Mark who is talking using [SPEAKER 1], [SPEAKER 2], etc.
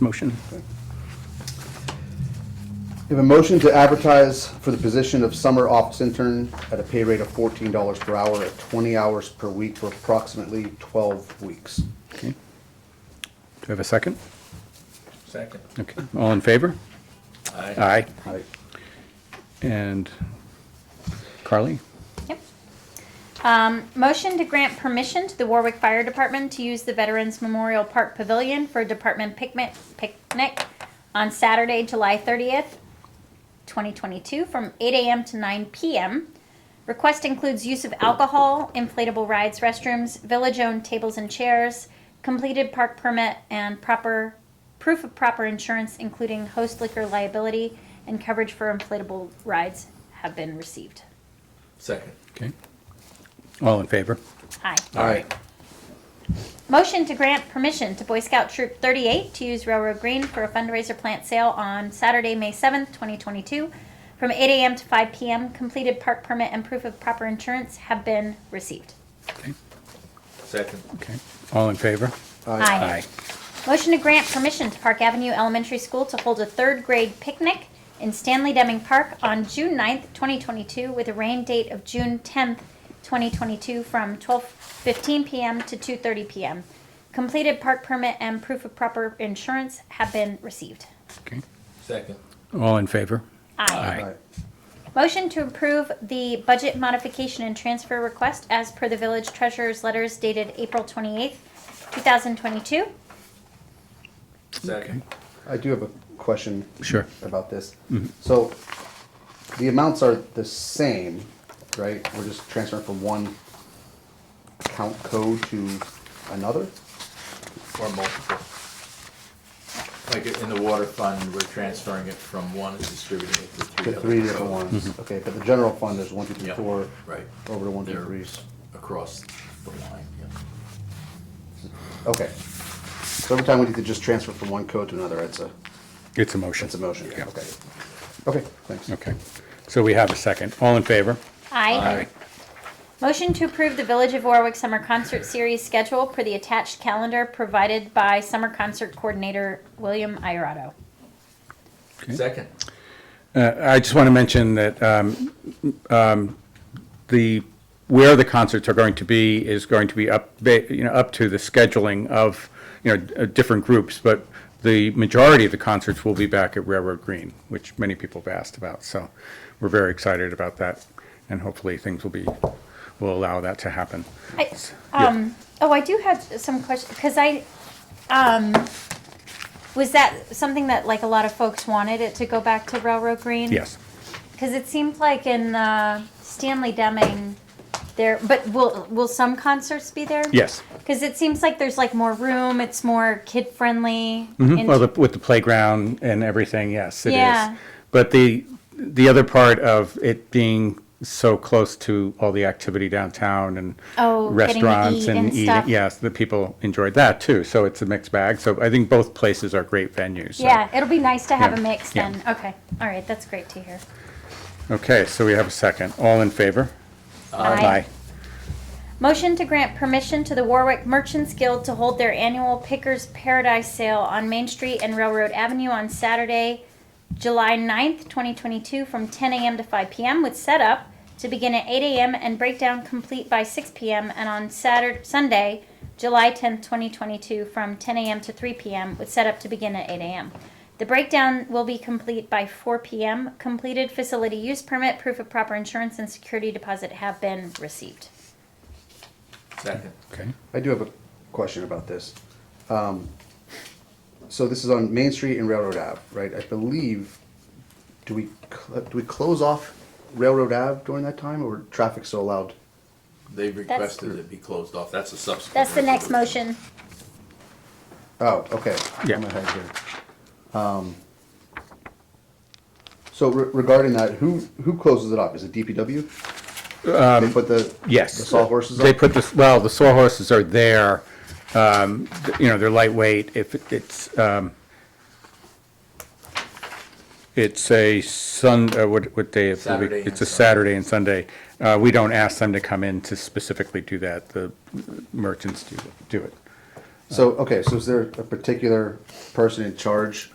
[SPEAKER 1] Motion.
[SPEAKER 2] We have a motion to advertise for the position of summer office intern at a pay rate of fourteen dollars per hour at twenty hours per week for approximately twelve weeks.
[SPEAKER 1] Okay. Do I have a second?
[SPEAKER 3] Second.
[SPEAKER 1] Okay, all in favor? Aye.
[SPEAKER 2] Right.
[SPEAKER 1] And Carly?
[SPEAKER 4] Yep. Um, motion to grant permission to the Warwick Fire Department to use the Veterans Memorial Park Pavilion for a department picnic, picnic on Saturday, July thirtieth, twenty twenty-two, from eight AM to nine PM. Request includes use of alcohol, inflatable rides, restrooms, village-owned tables and chairs, completed park permit, and proper, proof of proper insurance, including host liquor liability, and coverage for inflatable rides have been received.
[SPEAKER 3] Second.
[SPEAKER 1] Okay. All in favor?
[SPEAKER 4] Aye.
[SPEAKER 2] All right.
[SPEAKER 4] Motion to grant permission to Boy Scout Troop 38 to use Railroad Green for a fundraiser plant sale on Saturday, May 7th, 2022, from 8 a.m. to 5 p.m. Completed park permit and proof of proper insurance have been received.
[SPEAKER 1] Okay,
[SPEAKER 3] Second.
[SPEAKER 1] okay. All in favor?
[SPEAKER 4] Motion to grant permission to Park Avenue Elementary School to hold a third grade picnic in Stanley Deming Park on June 9th, 2022, with a rain date of June 10th, 2022, from 12:15 p.m. to 2:30 p.m. Completed park permit and proof of proper insurance have been received.
[SPEAKER 1] Okay.
[SPEAKER 3] Second.
[SPEAKER 1] All in favor?
[SPEAKER 4] Aye.
[SPEAKER 2] All right.
[SPEAKER 4] Motion to approve the budget modification and transfer request as per the village treasurer's letters dated April 28th, 2022.
[SPEAKER 3] Second.
[SPEAKER 2] I do have a question.
[SPEAKER 1] Sure.
[SPEAKER 2] About this. So the amounts are the same, right? We're just transferring from one account code to another?
[SPEAKER 3] Or multiple. Like in the water fund, we're transferring it from one and distributing it to three.
[SPEAKER 2] The three
[SPEAKER 3] others.
[SPEAKER 2] different
[SPEAKER 3] So
[SPEAKER 2] ones, okay, but the general fund is one, two, three,
[SPEAKER 3] Yeah,
[SPEAKER 2] four.
[SPEAKER 3] right.
[SPEAKER 2] Over to one, two,
[SPEAKER 3] They're-
[SPEAKER 2] threes.
[SPEAKER 3] Across the line, yeah.
[SPEAKER 2] Okay. So every time we need to just transfer from one code to another, it's a,
[SPEAKER 1] It's a motion.
[SPEAKER 2] it's a motion,
[SPEAKER 1] Yeah.
[SPEAKER 2] okay. Okay, thanks.
[SPEAKER 1] Okay. So we have a second. All in favor?
[SPEAKER 4] Aye. Motion to approve the Village of Warwick Summer Concert Series schedule per the attached calendar provided by Summer Concert Coordinator William Iorato.
[SPEAKER 1] Okay.
[SPEAKER 3] Second.
[SPEAKER 1] Uh, I just want to mention that um, um, the, where the concerts are going to be is going to be up, ba- you know, up to the scheduling of, you know, uh, different groups, but the majority of the concerts will be back at Railroad Green, which many people have asked about, so we're very excited about that, and hopefully things will be, will allow that to happen.
[SPEAKER 4] I, um, oh, I do have some questions, because I, um, was that something that like a lot of folks wanted it to go back to Railroad Green?
[SPEAKER 1] Yes.
[SPEAKER 4] Because it seemed like in uh, Stanley Deming, there, but will, will some concerts be there?
[SPEAKER 1] Yes.
[SPEAKER 4] Because it seems like there's like more room, it's more kid-friendly.
[SPEAKER 1] Mhm.
[SPEAKER 4] and-
[SPEAKER 1] Well, the- with the playground and everything, yes, it
[SPEAKER 4] Yeah.
[SPEAKER 1] is. But the, the other part of it being so close to all the activity downtown and
[SPEAKER 4] Oh, getting to
[SPEAKER 1] restaurants
[SPEAKER 4] eat
[SPEAKER 1] and
[SPEAKER 4] and
[SPEAKER 1] eating,
[SPEAKER 4] stuff.
[SPEAKER 1] yes, the people enjoyed that too. So it's a mixed bag. So I think both places are great venues. so-
[SPEAKER 4] Yeah, it'll be nice to have
[SPEAKER 1] Yeah,
[SPEAKER 4] a mix
[SPEAKER 1] yeah.
[SPEAKER 4] then. Okay, all right, that's great to hear.
[SPEAKER 1] Okay, so we have a second. All in favor? Uh,
[SPEAKER 4] Aye. Motion to grant permission to the Warwick Merchants Guild to hold their annual Pickers Paradise Sale on Main Street and Railroad Avenue on Saturday, July 9th, 2022, from 10 a.m. to 5 p.m. with setup to begin at 8 a.m. and breakdown complete by 6 p.m. and on Saturday, Sunday, July 10th, 2022, from 10 a.m. to 3 p.m. with setup to begin at 8 a.m. The breakdown will be complete by 4 p.m. Completed facility use permit, proof of proper insurance, and security deposit have been received.
[SPEAKER 3] Second.
[SPEAKER 1] Okay,
[SPEAKER 2] I do have a question about this. Um, So this is on Main Street and Railroad Ave, right? I believe, do we, cl- do we close off Railroad Ave during that time, or traffic's so allowed?
[SPEAKER 3] They requested it be closed off. That's a subsequent.
[SPEAKER 4] That's the next
[SPEAKER 3] resolution.
[SPEAKER 4] motion.
[SPEAKER 2] Oh, okay.
[SPEAKER 1] Yeah.
[SPEAKER 2] I'm ahead here. Um, So re- regarding that, who, who closes it up? Is it DPW? They put the.
[SPEAKER 1] Um, yes.
[SPEAKER 2] The sawhorses up?
[SPEAKER 1] They put this, well, the sawhorses are there. um, th- You know, they're lightweight. If it- it's, um, it's a Sun, uh, what, what day? of the week?
[SPEAKER 3] Saturday and
[SPEAKER 1] It's a
[SPEAKER 3] Sunday.
[SPEAKER 1] Saturday and Sunday. Uh, We don't ask them to come in to specifically do that. The merchants do, do it.
[SPEAKER 2] So, okay, so is there a particular person in charge